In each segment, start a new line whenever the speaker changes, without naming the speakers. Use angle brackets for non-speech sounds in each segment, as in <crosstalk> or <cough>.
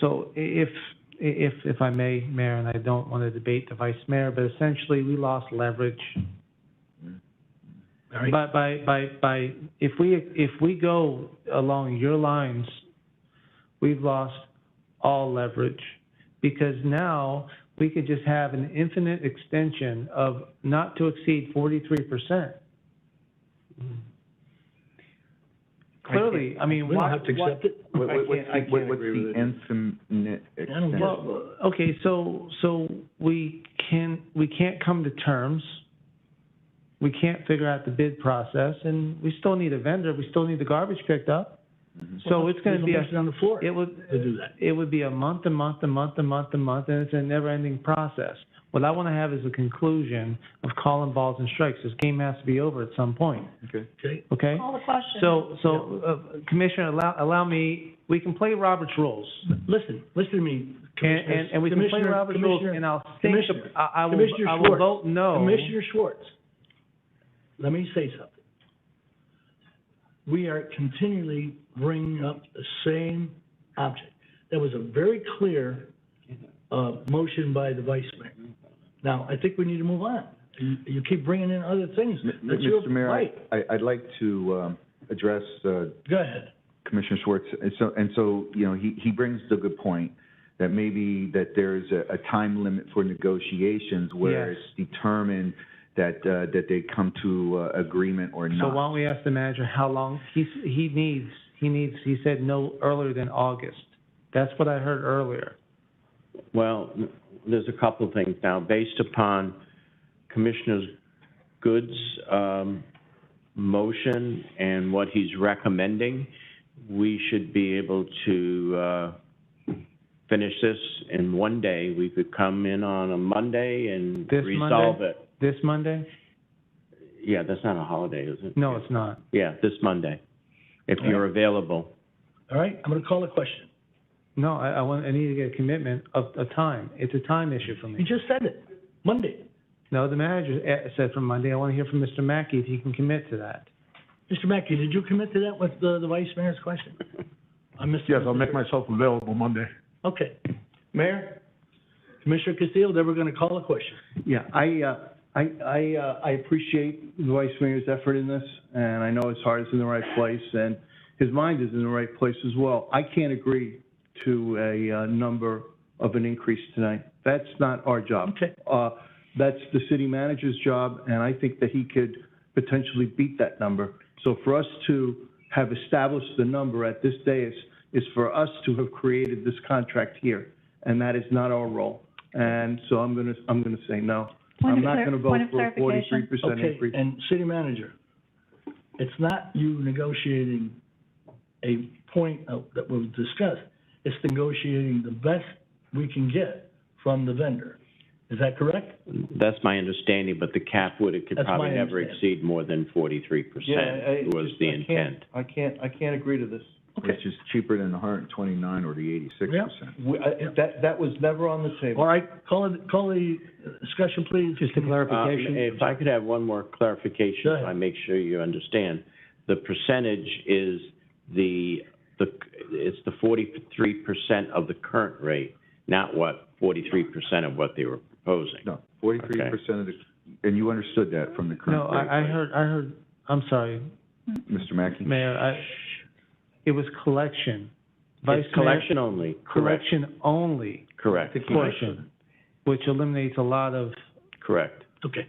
So if, if, if I may, Mayor, and I don't want to debate the Vice Mayor, but essentially, we lost leverage.
All right.
By, by, by, by, if we, if we go along your lines, we've lost all leverage. Because now, we could just have an infinite extension of not to exceed forty-three percent.
Mm-hmm.
Clearly, I mean,
We don't
why,
have to
why-
accept it.
What,
I
what, what's
can't- I
the,
can't
what- what's
agree
the
with it.
infinite
I
extent?
don't get it.
Well, okay, so, so we can, we can't come to terms. We can't figure out the bid process, and we still need a vendor, we still need the garbage picked up.
Mm-hmm.
So it's gonna be,
There's
a
no motion on the floor
it would,
to do that.
it would be a month, a month, a month, a month, a month, and it's a never-ending process. What I wanna have is a conclusion of calling balls and strikes. This game has to be over at some point,
Okay.
Okay,
okay?
Call the question.
So, so, uh, Commissioner, allow, allow me, we can play Robert's rules.
listen, listen to me.
And, and, and we can play
Commissioner-
Robert's rules,
Commissioner-
and I'll think,
Commissioner-
I, I will,
Commissioner
I will
Schwartz.
vote no.
Commissioner Schwartz, let me say something. We are continually bringing up the same object. That was a very clear, uh, motion by the vice mayor. Now, I think we need to move on. You, you keep bringing in other things.
M- m-
That's your
Mr. Mayor, I,
right.
I- I'd like to, um, address, uh,
Go ahead.
Commissioner Schwartz. And so, and so, you know, he, he brings the good point that maybe that there's a, a time limit for negotiations where
Yes.
it's determined that, uh, that they come to, uh, agreement or
So why
not.
don't we ask the manager how long, he's, he needs, he needs, he said no earlier than August. That's what I heard earlier.
Well, there's a couple of things now. Based upon Commissioner Good's um, motion and what he's recommending, we should be able to uh, finish this in one day. We could come in on a Monday and
This Monday?
resolve it.
This Monday?
Yeah, that's not a holiday, is it?
No, it's not.
Yeah, this Monday, if you're available.
All right, I'm gonna call a question.
No, I, I want, I need to get a commitment of, of time. It's a time issue for
You
me.
just said it, Monday.
No, the manager eh, said for Monday, I want to hear from Mr. Mackey if he can commit to that.
Mr. Mackey, did you commit to that with the, the vice mayor's
<laughs>
question? I missed.
Yes, I'll make myself available Monday.
Okay. Mayor? Commissioner Castillo, then we're gonna call a question.
Yeah, I, uh, I, I, uh, I appreciate the vice mayor's effort in this, and I know his heart is in the right place, and his mind is in the right place as well. I can't agree to a, uh, number of an increase tonight. That's not our job.
Okay.
Uh, that's the city manager's job, and I think that he could potentially beat that number. So for us to have established the number at this day is, is for us to have created this contract here, and that is not our role. And so I'm gonna, I'm gonna say no.
Point
I'm
of
not
clar-
gonna vote
point of
for a forty-three
clarification.
percent
Okay,
increase.
and city manager, it's not you negotiating a point of- that was discussed. It's negotiating the best we can get from the vendor. Is that correct?
That's my understanding, but the cap would, it could
That's
probably
my
never
understanding.
exceed more than forty-three percent was the intent.
I can't, I can't agree to this.
Okay.
Which is cheaper than the hundred and twenty-nine or the eighty-six
Yeah.
percent.
We, I, that, that was never on the
All
table.
right, call it, call the discussion, please. Uh,
Just a
Um,
clarification.
If I could have one more clarification,
Go
if
ahead.
I make sure you understand. The percentage is the, the, it's the forty-three percent of the current rate, not what, forty-three percent of what they were proposing.
No, forty-three percent of the, and you understood that from the
No,
current rate,
I, I
right,
heard, I heard, I'm sorry,
Mr. Mackey?
Mayor, I, it was collection. Vice
It's
Mayor,
collection only, correct,
collection only
correct,
portion, which eliminates a lot of
correct.
Okay.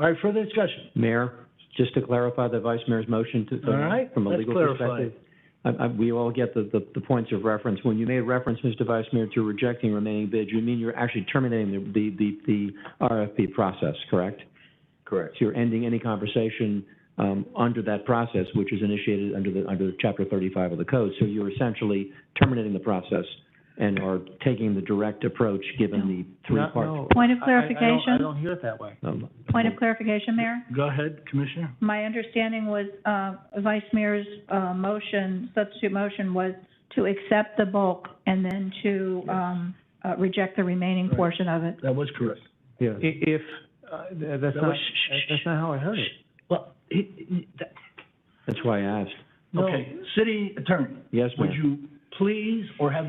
All right, further discussion.
Mayor, just to clarify the vice mayor's motion to.
All right,
From a
let's
legal
clarify.
perspective. I, I, we all get the, the, the points of reference. When you made reference, Mr. Vice Mayor, to rejecting remaining bids, you mean you're actually terminating the, the, the, the RFP process, correct?
Correct.
So you're ending any conversation, um, under that process, which is initiated under the, under chapter thirty-five of the code. So you're essentially terminating the process and are taking the direct approach, given the three
Not-
parts.
no,
Point of
I- I- I don't- I
clarification?
don't hear it that way.
Um,
Point of clarification, Mayor?
Go ahead, Commissioner.
My understanding was, uh, Vice Mayor's, uh, motion, substitute motion was to accept the bulk and then to, um, uh, reject the remaining
Right.
portion of it.
That was correct.
Yeah.
I- If, uh, th- that's
That
not,
was- shh, shh, shh.
that's not how I heard it.
Well, he, he, that,
That's why I asked.
No.
okay, city attorney,
Yes, Mayor.
would you please, or have